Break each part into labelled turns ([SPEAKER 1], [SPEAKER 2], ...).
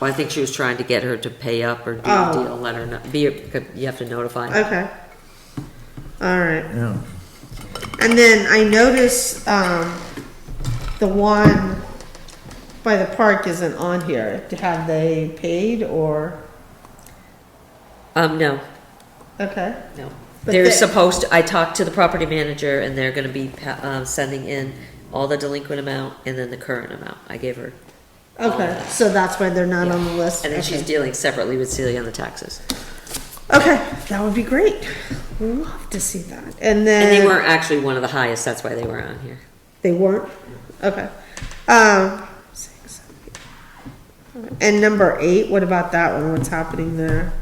[SPEAKER 1] Well, I think she was trying to get her to pay up or do a
[SPEAKER 2] Oh.
[SPEAKER 1] deal, let her know, be, you have to notify.
[SPEAKER 2] Okay. All right.
[SPEAKER 3] Yeah.
[SPEAKER 2] And then I notice um, the one by the park isn't on here. Have they paid or?
[SPEAKER 1] Um, no,
[SPEAKER 2] Okay.
[SPEAKER 1] no.
[SPEAKER 2] But
[SPEAKER 1] They're
[SPEAKER 2] they-
[SPEAKER 1] supposed, to- I talked to the property manager and they're gonna be, pa- uh, sending in all the delinquent amount and then the current amount. I gave her.
[SPEAKER 2] Okay. So that's why they're not on the list.
[SPEAKER 1] And then she's
[SPEAKER 2] Okay.
[SPEAKER 1] dealing separately with Celia on the taxes.
[SPEAKER 2] Okay, that would be great. Love to see that. And then
[SPEAKER 1] And they weren't actually one of the highest, that's why they were on here.
[SPEAKER 2] They weren't? Okay. Um, six, seven, eight. and number eight, what about that one? What's happening there?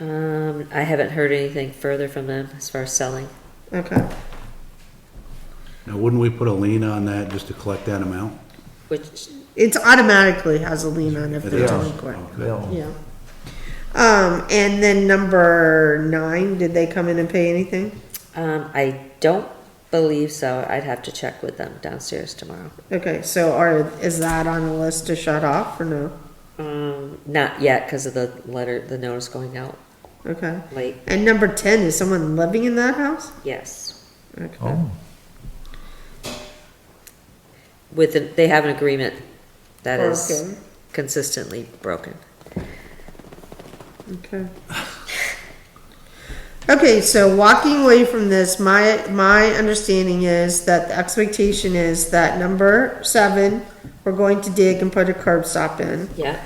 [SPEAKER 1] Um, I haven't heard anything further from them as far as selling.
[SPEAKER 2] Okay.
[SPEAKER 4] Now, wouldn't we put a lien on that just to collect that amount?
[SPEAKER 1] Which,
[SPEAKER 2] It's automatically has a lien on if they're
[SPEAKER 4] Yeah.
[SPEAKER 2] delinquent.
[SPEAKER 3] Yeah.
[SPEAKER 2] Yeah. Um, and then number nine, did they come in and pay anything?
[SPEAKER 1] um, I don't believe so. I'd have to check with them downstairs tomorrow.
[SPEAKER 2] Okay, so are, is that on the list to shut off or no?
[SPEAKER 1] Um, not yet because of the letter, the notice going out
[SPEAKER 2] Okay.
[SPEAKER 1] late.
[SPEAKER 2] And number ten, is someone living in that house?
[SPEAKER 1] Yes.
[SPEAKER 2] Okay.
[SPEAKER 3] Oh,
[SPEAKER 1] With, an- they have an agreement that is
[SPEAKER 2] Broken.
[SPEAKER 1] consistently broken.
[SPEAKER 2] Okay. Okay, so walking away from this, my, my understanding is that the expectation is that number seven, we're going to dig and put a curb stop in.
[SPEAKER 1] Yeah.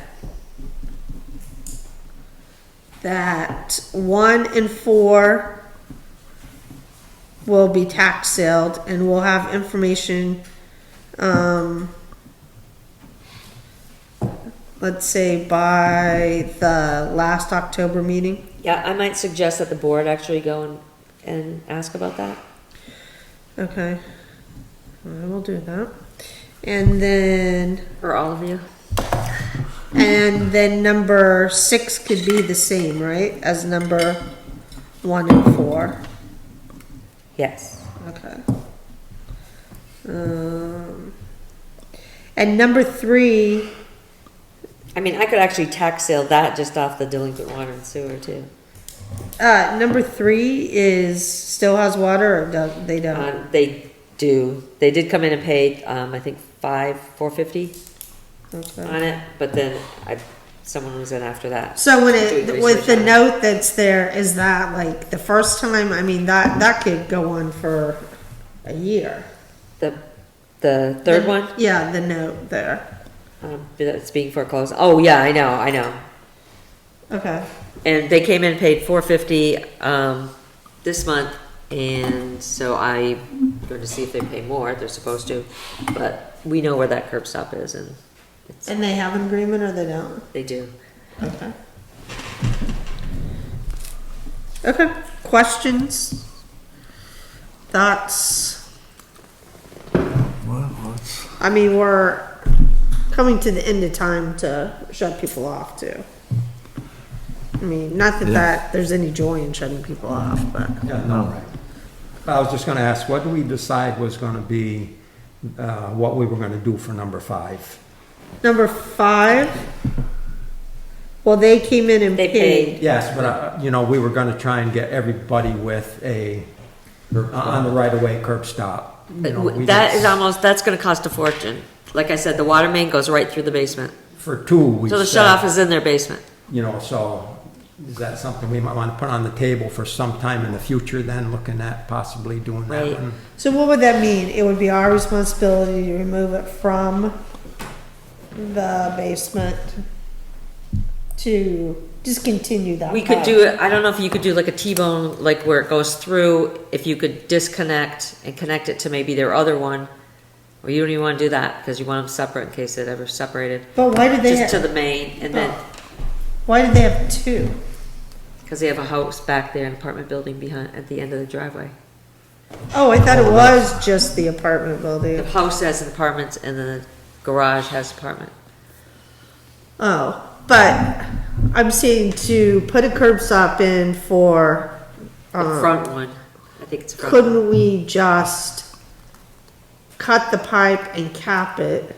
[SPEAKER 2] That one and four will be tax sailed and we'll have information, um, let's say by the last October meeting.
[SPEAKER 1] Yeah, I might suggest that the board actually go and, and ask about that.
[SPEAKER 2] Okay. I will do that. And then,
[SPEAKER 1] Or all of you.
[SPEAKER 2] and then number six could be the same, right, as number one and four?
[SPEAKER 1] Yes.
[SPEAKER 2] Okay. Um, and number three,
[SPEAKER 1] I mean, I could actually tax sale that just off the delinquent water and sewer too.
[SPEAKER 2] uh, number three is, still has water or do they don't?
[SPEAKER 1] Um, they do, they did come in and paid, um, I think five, four fifty
[SPEAKER 2] Okay.
[SPEAKER 1] on it, but then I, someone was in after that.
[SPEAKER 2] So when
[SPEAKER 1] Doing
[SPEAKER 2] it, with the
[SPEAKER 1] research on it.
[SPEAKER 2] note that's there, is that like the first time, I mean, that, that could go on for a year.
[SPEAKER 1] The, the third one?
[SPEAKER 2] Yeah, the note there.
[SPEAKER 1] Um, it's being foreclosed. Oh, yeah, I know, I know.
[SPEAKER 2] Okay.
[SPEAKER 1] And they came in and paid four fifty, um, this month, and so I'm going to see if they pay more, they're supposed to. But we know where that curb stop is, and it's,
[SPEAKER 2] And they have an agreement or they don't?
[SPEAKER 1] they do.
[SPEAKER 2] Okay. Okay, questions? Thoughts?
[SPEAKER 3] well, that's,
[SPEAKER 2] I mean, we're coming to the end of time to shut people off too. I mean, not that
[SPEAKER 3] Yeah.
[SPEAKER 2] that, there's any joy in shutting people off, but,
[SPEAKER 5] Yeah, no, right. I was just gonna ask, what do we decide was gonna be, uh, what we were gonna do for number five?
[SPEAKER 2] number five? Well, they came in and
[SPEAKER 1] They
[SPEAKER 2] paid.
[SPEAKER 1] paid.
[SPEAKER 5] Yes, but, uh, you know, we were gonna try and get everybody with a, uh, on the right-of-way curb stop. You know, we
[SPEAKER 1] That
[SPEAKER 5] didn't-
[SPEAKER 1] is almost, that's gonna cost a fortune. Like I said, the water main goes right through the basement.
[SPEAKER 5] For two, we
[SPEAKER 1] So the
[SPEAKER 5] said,
[SPEAKER 1] shut off is in their basement.
[SPEAKER 5] You know, so is that something we might wanna put on the table for some time in the future then, looking at possibly doing that
[SPEAKER 1] Right.
[SPEAKER 5] one?
[SPEAKER 2] So what would that mean? It would be our responsibility to remove it from the basement to discontinue that.
[SPEAKER 1] We could
[SPEAKER 2] part.
[SPEAKER 1] do, it. I don't know if you could do like a T-bone, like where it goes through, if you could disconnect and connect it to maybe their other one. Or you don't even wanna do that, cause you want them separate in case it ever separated.
[SPEAKER 2] But why did they,
[SPEAKER 1] Just to
[SPEAKER 2] have-
[SPEAKER 1] the main and then,
[SPEAKER 2] why did they have two?
[SPEAKER 1] cause they have a house back there, an apartment building behind, at the end of the driveway.
[SPEAKER 2] Oh, I thought it was just the apartment
[SPEAKER 1] The
[SPEAKER 2] building.
[SPEAKER 1] house has an apartment and the garage has apartment.
[SPEAKER 2] Oh, but I'm saying to put a curb stop in for,
[SPEAKER 1] The
[SPEAKER 2] um,
[SPEAKER 1] front one, I think it's a front. one.
[SPEAKER 2] couldn't we just cut the pipe and cap it?